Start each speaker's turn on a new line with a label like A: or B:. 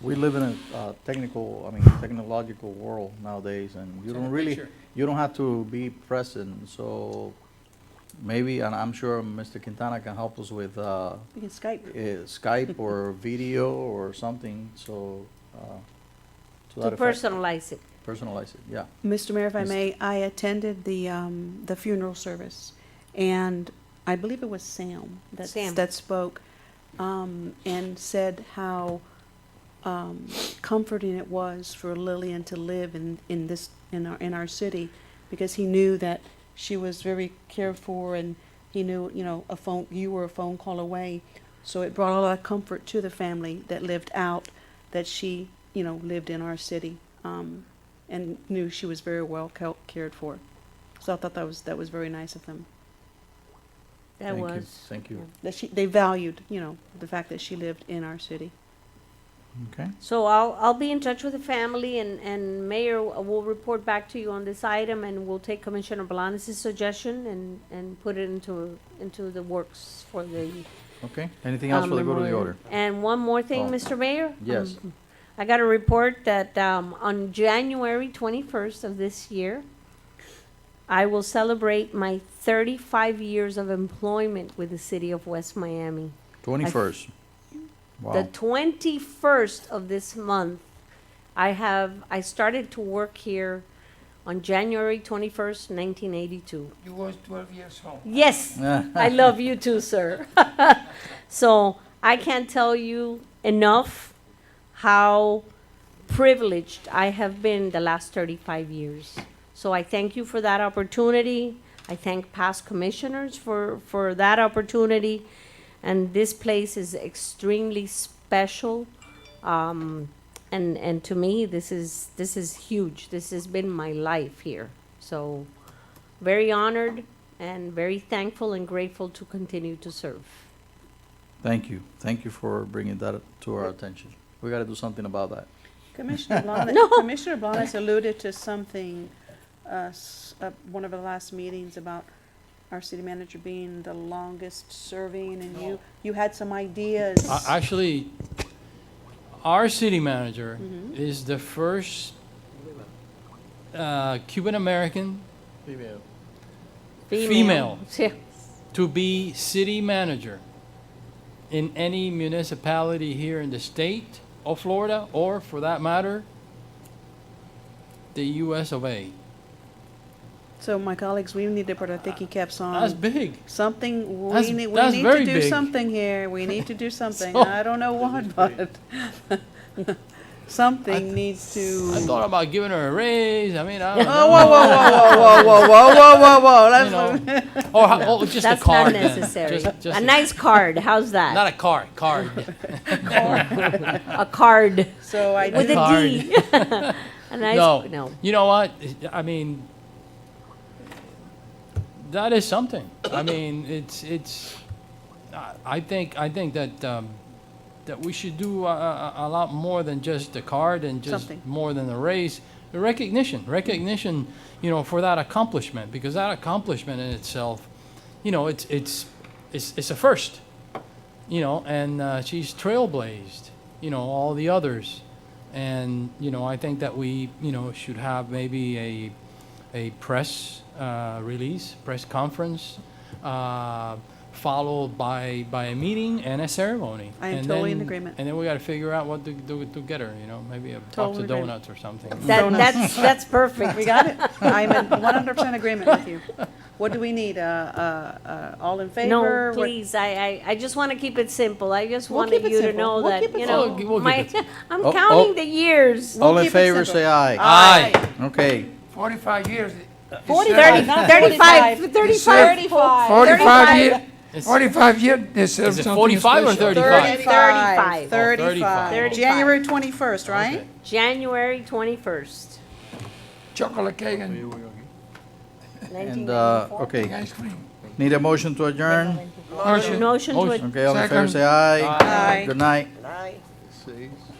A: We live in a uh, technical, I mean, technological world nowadays, and you
B: It's in
A: don't
B: the
A: really,
B: picture.
A: you don't have to be present, so maybe, and I'm sure Mr. Quintana can help us with uh,
C: We can Skype.
A: eh, Skype or video or something, so, uh, to
D: to
A: that effect.
D: personalize it.
A: Personalize it, yeah.
C: Mr. Mayor, if I
A: Yes.
C: may, I attended the, um, the funeral service, and I believe it was Sam that,
D: Sam.
C: that spoke, um, and said how, um, comforting it was for Lillian to live in, in this, in our, in our city, because he knew that she was very cared for, and he knew, you know, a phone, you were a phone call away. So it brought a lot of comfort to the family that lived out, that she, you know, lived in our city, um, and knew she was very well ca- cared for. So I thought that was, that was very nice of them,
D: That
A: Thank you,
D: was.
A: Thank you.
C: that she, they valued, you know, the fact that she lived in our city.
A: Okay,
D: So I'll, I'll be in touch with the family and, and Mayor will report back to you on this item and we'll take Commissioner Blanes' suggestion and, and put it into, into the works for the.
A: okay. Anything else
D: um,
A: for the good of the
D: memorial.
A: order?
D: And one more thing,
A: Oh.
D: Mr. Mayor?
A: Yes.
D: Um, I got a report that, um, on January twenty-first of this year, I will celebrate my thirty-five years of employment with the city of West Miami.
A: Twenty-first.
D: The
A: Wow,
D: twenty-first of this month, I have, I started to work here on January twenty-first, nineteen eighty-two.
B: You was twelve years old.
D: Yes,
A: Eh,
D: I love you too, sir. so I can't tell you enough how privileged I have been the last 35 years. So I thank you for that opportunity. I thank past commissioners for, for that opportunity. And this place is extremely special. Um, and, and to me, this is, this is huge. This has been my life here. So very honored and very thankful and grateful to continue to serve.
A: thank you, thank you for bringing that to our attention. We gotta do something about that.
C: Commissioner Blanes,
D: No.
C: Commissioner Blanes alluded to something, uh, s- uh, one of the last meetings about our city manager being the longest serving and you, you had some ideas.
E: A- Actually, our city manager
C: Mm-hmm.
E: is the first uh, Cuban American Female.
D: Yeah.
E: to be city manager in any municipality here in the state of Florida, or for that matter, the US of A.
C: So my colleagues, we need to put our thinking caps
E: That's
C: on.
E: big.
C: Something, we
E: that's-
C: need, we
E: that's
C: need to
E: very
C: do
E: big.
C: something here. We need to do something.
E: So-
C: I don't know what, but something needs to.
E: I thought about giving her a raise. I mean, I
C: Oh,
E: don't
C: whoa, whoa, whoa, whoa, whoa, whoa, whoa, whoa, whoa,
E: You
C: that's.
E: know, or, ho- or just a
D: That's not
E: card. then.
D: necessary.
E: Just- just
D: A nice card, how's
E: Not
D: that?
E: a card, card.
D: A card
C: So I
D: with
C: did-
D: a
E: card.
D: D. A
E: no.
D: nice, no.
E: You know what? I mean, that is something. I mean, it's it's. I- I think I think that um, that we should do a, a, a lot more than just the card and just
C: Something.
E: more than the raise. The recognition, recognition, you know, for that accomplishment because that accomplishment in itself, you know, it's it's it's it's a first you know, and uh, she's trailblazed, you know, all the others. And, you know, I think that we, you know, should have maybe a, a press uh, release, press conference, uh, followed by, by a meeting and a ceremony.
C: I am
E: And
C: totally in
E: then-
C: agreement.
E: And then we got to figure out what to do to get her, you know, maybe a box
C: Totally
E: of
C: agree.
E: donuts or something.
D: That,
C: Donuts.
D: that's, that's
C: We
D: perfect.
C: got it. I'm in one hundred percent agreement with you. What do we need? Uh, uh, uh, all in favor?
D: No,
C: What-
D: please, I, I, I just want to keep it simple. I just
C: We'll
D: wanted
C: keep it
D: you to
C: simple.
D: know
C: We'll
D: that,
C: keep it
D: you
E: simple.
D: know,
E: We'll- we'll
D: my,
E: keep
D: I'm
A: Oh, oh.
D: counting the years.
E: Oh,
A: All in
C: keep it
A: favor,
C: simple.
A: say aye.
E: Aye.
A: Okay,
B: Forty-five years. is
C: Forty-five,
B: served.
C: not
E: oh.
D: 35, 35.
B: Forty-five
D: 35.
B: year,
E: It's-
B: forty-five year, they serve
E: it
B: something
E: 45 or
B: special.
E: 30?
C: Thirty-five.
D: Thirty-five.
E: Thirty-five.
C: Thirty-five.
D: Thirty-five.
C: January twenty-first, right?
D: January 21st,
B: Chocolate cake and
A: and, uh, okay,
B: ice cream.
A: need a motion to adjourn?
B: Motion.
D: Motion to
E: Motion.
D: adjourn.
A: Okay, all in favor,
B: Second.
A: say aye.
C: Aye.
A: Good night.
F: Seis.